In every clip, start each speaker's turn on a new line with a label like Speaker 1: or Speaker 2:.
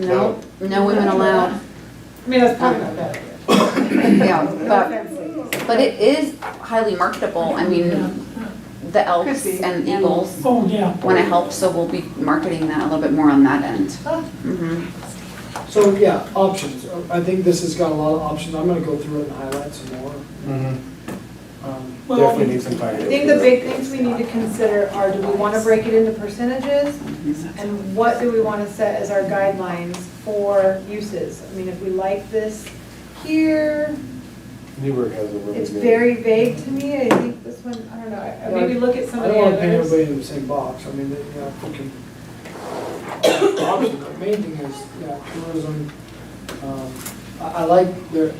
Speaker 1: No, no women allowed.
Speaker 2: I mean, that's probably not bad.
Speaker 1: Yeah, but,
Speaker 2: But.
Speaker 1: but it is highly marketable. I mean, the elks
Speaker 2: Could be.
Speaker 1: and eagles
Speaker 3: Oh, yeah.
Speaker 1: want to help, so we'll be marketing that a little bit more on that end. Mhm.
Speaker 4: So, yeah, options. I think this has got a lot of options. I'm gonna go through it and highlight some more.
Speaker 5: Mm-hmm.
Speaker 6: Mhm.
Speaker 4: Um,
Speaker 3: Well,
Speaker 6: Definitely need some
Speaker 2: I
Speaker 6: clarity.
Speaker 2: think the big things we need to consider are, do we want to break it into percentages? And what do we want to set as our guidelines for uses? I mean, if we like this here,
Speaker 6: Newburgh has a really good.
Speaker 2: it's very vague to me, I think this one, I don't know, I- maybe look at some
Speaker 4: I
Speaker 2: of
Speaker 4: don't
Speaker 2: the
Speaker 4: wanna paint
Speaker 2: others.
Speaker 4: everybody in the same box. I mean, that, yeah, we can. Option, the main thing is, yeah, tourism. Um, I, I like the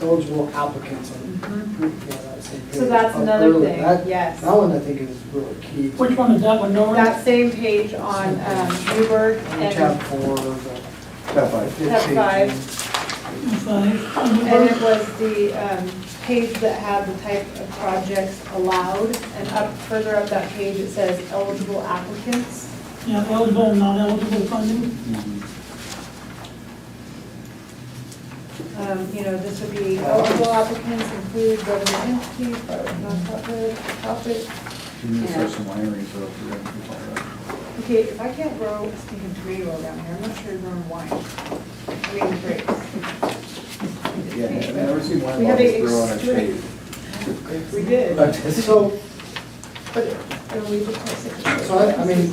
Speaker 4: eligible applicants on,
Speaker 2: Mhm.
Speaker 4: yeah, that same page.
Speaker 2: So that's
Speaker 4: up
Speaker 2: another
Speaker 4: early.
Speaker 2: thing,
Speaker 4: That-
Speaker 2: yes.
Speaker 4: That one I think is really key.
Speaker 3: which one is that one, Nora?
Speaker 2: That same page on um, Newburgh
Speaker 4: On Tab
Speaker 2: and,
Speaker 4: four, the.
Speaker 6: Top five.
Speaker 2: Tab five. and
Speaker 3: Five.
Speaker 2: it was the um, page that had the type of projects allowed. And up, further up that page, it says eligible applicants.
Speaker 3: Yeah, eligible, not eligible funding.
Speaker 2: Um, You know, this would be eligible applicants include government entities, nonprofit, profit.
Speaker 5: You need to
Speaker 1: Yeah.
Speaker 5: start some wineries up if you're gonna keep all that.
Speaker 2: Okay, if I can't grow a stinking tomato down here, I'm not sure you're growing wine. I mean, grapes.
Speaker 5: Yeah, I've never seen
Speaker 2: We
Speaker 5: wine
Speaker 2: have a
Speaker 5: bottles grow on a
Speaker 2: extreme-
Speaker 5: tree.
Speaker 2: We did.
Speaker 5: But it's-
Speaker 4: So,
Speaker 2: And we requested.
Speaker 4: So I- I mean,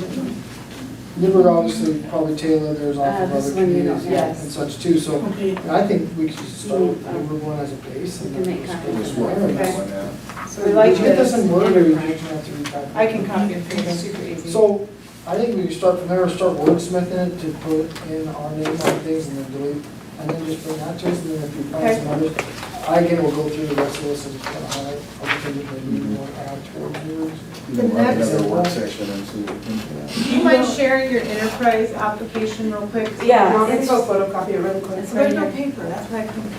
Speaker 4: Newburgh obviously probably Taylor, there's off
Speaker 1: Uh,
Speaker 4: of
Speaker 1: this
Speaker 4: other
Speaker 1: one you don't
Speaker 4: communities
Speaker 1: have.
Speaker 4: and such too, so
Speaker 3: Okay.
Speaker 4: I think we should start with Newburgh one as a base and
Speaker 1: You can
Speaker 4: then.
Speaker 1: make
Speaker 4: just
Speaker 1: copies.
Speaker 4: go
Speaker 5: It was
Speaker 4: from
Speaker 5: worth
Speaker 4: there.
Speaker 5: it,
Speaker 2: Okay.
Speaker 5: went out.
Speaker 2: So we like
Speaker 4: Did you get this
Speaker 2: this.
Speaker 4: in Word or did you just have to retype? it?
Speaker 2: I can copy and paste, it's super easy.
Speaker 4: So I think we can start from there, start wordsmithing it to put in our name on things and then delete, and then just bring that to us, and then if you find
Speaker 2: Okay.
Speaker 4: some others. I again will go through the rest of this and kind of highlight, opportunities that we want to add towards yours.
Speaker 5: You can run
Speaker 2: next-
Speaker 5: another work session and see what you think of
Speaker 2: Do
Speaker 5: that.
Speaker 2: you mind sharing your enterprise application real quick?
Speaker 7: Yeah,
Speaker 2: It's
Speaker 7: it's. photocopy it really quick.
Speaker 2: There's no paper, that's why I couldn't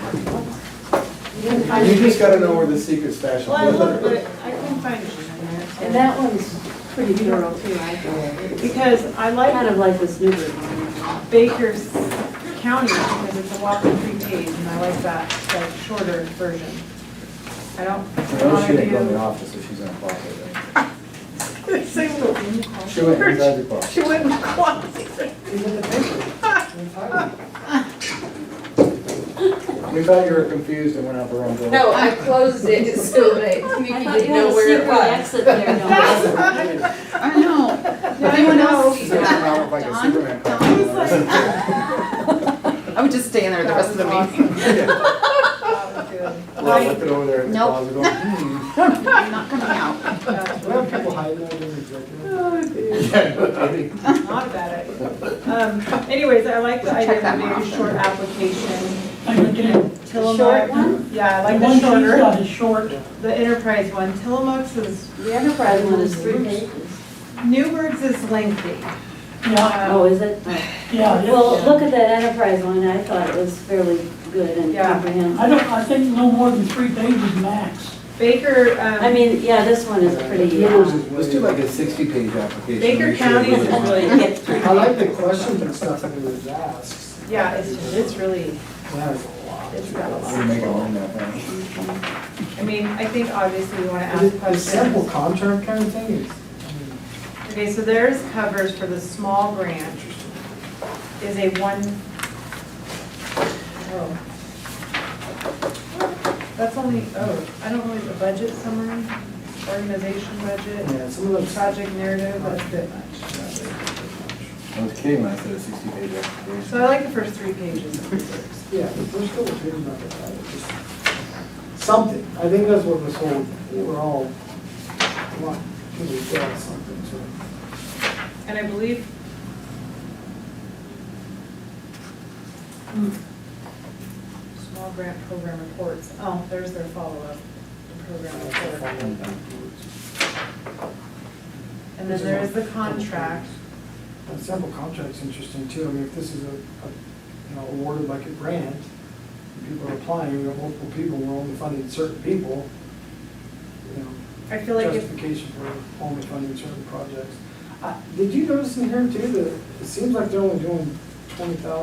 Speaker 2: copy.
Speaker 6: You just gotta know where the secret stash is.
Speaker 2: Well, I looked, but I couldn't find it in
Speaker 7: And
Speaker 2: there.
Speaker 7: that one's pretty thorough too, I think. It's
Speaker 2: Because I
Speaker 7: Kind
Speaker 2: like
Speaker 7: of like this Newburgh one.
Speaker 2: Baker's County because it's a walking three page and I like that, that shorter version. I
Speaker 5: I know she didn't go in the
Speaker 2: don't.
Speaker 5: office, so she's in a closet.
Speaker 2: wanna do-
Speaker 5: She went inside the closet.
Speaker 2: She wouldn't qualify.
Speaker 4: Is it the paper?
Speaker 5: We thought you were confused and went out the wrong door.
Speaker 8: No, I closed it so that Nikki
Speaker 7: I thought
Speaker 8: didn't
Speaker 7: you had
Speaker 8: know
Speaker 7: a
Speaker 8: where it
Speaker 7: secret
Speaker 8: was.
Speaker 7: Exit there,
Speaker 1: I
Speaker 7: no.
Speaker 1: know. Anyone else?
Speaker 5: She's gonna come out like a
Speaker 1: Don?
Speaker 5: Superman.
Speaker 1: Don?
Speaker 5: costume.
Speaker 1: I would just stay in there the rest of the meeting.
Speaker 2: Oh,
Speaker 5: Well, I looked it over there in the
Speaker 1: Nope.
Speaker 5: closet. going, hmm.
Speaker 1: I'm not coming out.
Speaker 4: We have people hiding out in the executive.
Speaker 2: Not a bad idea. Um, Anyways, I like the
Speaker 1: Check
Speaker 2: idea of
Speaker 1: that
Speaker 2: a
Speaker 1: one
Speaker 2: very
Speaker 1: off.
Speaker 2: short application.
Speaker 3: I looked at it.
Speaker 2: Tillamook-
Speaker 7: short one?
Speaker 2: Yeah, I like
Speaker 3: The
Speaker 2: the
Speaker 3: one she's
Speaker 2: shorter,
Speaker 3: got is short.
Speaker 2: the enterprise one. Tillamook's is,
Speaker 7: The enterprise one is three pages.
Speaker 2: Newburgh's is lengthy.
Speaker 3: Yeah,
Speaker 2: Um,
Speaker 7: Oh, is it?
Speaker 3: yeah. yeah.
Speaker 7: Well, look at that enterprise one, I thought it was fairly good and
Speaker 2: Yeah.
Speaker 7: comprehensive.
Speaker 3: I don't, I think no more than three pages max.
Speaker 2: Baker, um,
Speaker 7: I mean, yeah, this one is pretty,
Speaker 4: Yours
Speaker 7: uh,
Speaker 4: is
Speaker 5: Let's
Speaker 4: way-
Speaker 5: do like a sixty-page application.
Speaker 2: Baker
Speaker 5: Make sure
Speaker 2: County is
Speaker 5: everybody's on.
Speaker 2: really,
Speaker 4: I like the questions and stuff that it was asked.
Speaker 2: yeah, it's, just- it's really,
Speaker 4: That is a lot.
Speaker 2: it's got a
Speaker 5: We'll
Speaker 2: lot.
Speaker 5: make it long that way.
Speaker 2: I mean, I think obviously we want to
Speaker 4: The-
Speaker 2: ask
Speaker 4: The sample
Speaker 2: questions.
Speaker 4: contract kind of thing is, I mean,
Speaker 2: Okay, so theirs covers for the small grant is a one, oh. That's only, oh, I don't know, like the budget summary, organization budget,
Speaker 4: yeah, some of those.
Speaker 2: project narrative, that's a bit much.
Speaker 5: I was kidding when I said a sixty-page application.
Speaker 2: So I like the first three pages of reserves.
Speaker 4: Yeah, there's still a bit about it, right? It's just Something, I think that's what this whole, we're all, what, can we get something, so.
Speaker 2: And I believe. hmm, Small grant program reports, oh, there's their follow-up, the program report. And then there is the contract,
Speaker 4: That sample contract's interesting too, I mean, if this is a, a, you know, awarded like a grant, and people are applying, we have multiple people, we're only funding certain people, you know.
Speaker 2: I feel like if,
Speaker 4: justification for only funding certain projects. Uh, Did you notice in here too, that it seems like they're only doing twenty thousand